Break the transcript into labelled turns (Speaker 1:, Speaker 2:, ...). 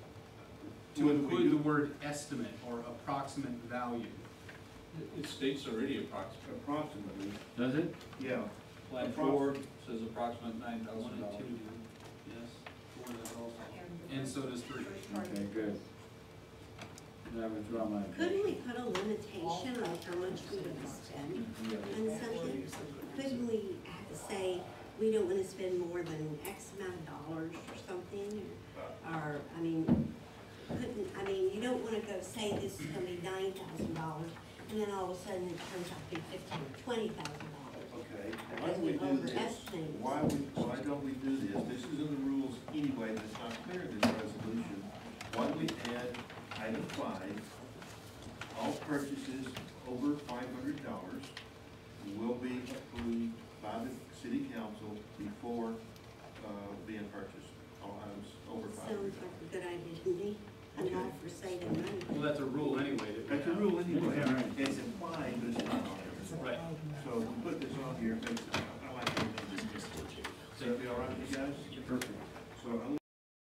Speaker 1: to
Speaker 2: Would we
Speaker 1: include the
Speaker 2: do-
Speaker 1: word estimate or approximate value.
Speaker 3: It- It states already approximately.
Speaker 2: approximately,
Speaker 4: Does it?
Speaker 2: yeah.
Speaker 3: Plan
Speaker 2: Approx-
Speaker 3: four says approximate nine
Speaker 1: One
Speaker 3: thousand
Speaker 1: and two do,
Speaker 3: dollars.
Speaker 1: yes, four does also. And so does three.
Speaker 4: Okay, good. Then I withdraw my.
Speaker 5: Couldn't we put a limitation on how much we would spend on something? Couldn't we add- say, we don't wanna spend more than X amount of dollars or something? Or, I mean, couldn't, I mean, you don't wanna go say this is gonna be nine thousand dollars, and then all of a sudden it turns out to be fifteen or twenty thousand dollars.
Speaker 2: Okay, why don't we do this? Why we, why don't we do this? This is in the rules anyway, that's not clear in this resolution. Why don't we add item five, all purchases over five hundred dollars will be approved by the city council before, uh, being purchased, all items over five hundred
Speaker 5: Sounds
Speaker 2: dollars.
Speaker 5: like a good idea to me, I'm all for saving money.
Speaker 1: Well, that's a rule anyway. that we
Speaker 2: That's a
Speaker 1: have.
Speaker 2: rule anyway,
Speaker 4: Yeah, right.
Speaker 2: it's implied, but it's not on there.
Speaker 1: Right,
Speaker 2: So we put this on here, makes, I like it. Does that be all right with you guys?
Speaker 4: Perfect.
Speaker 2: So I'm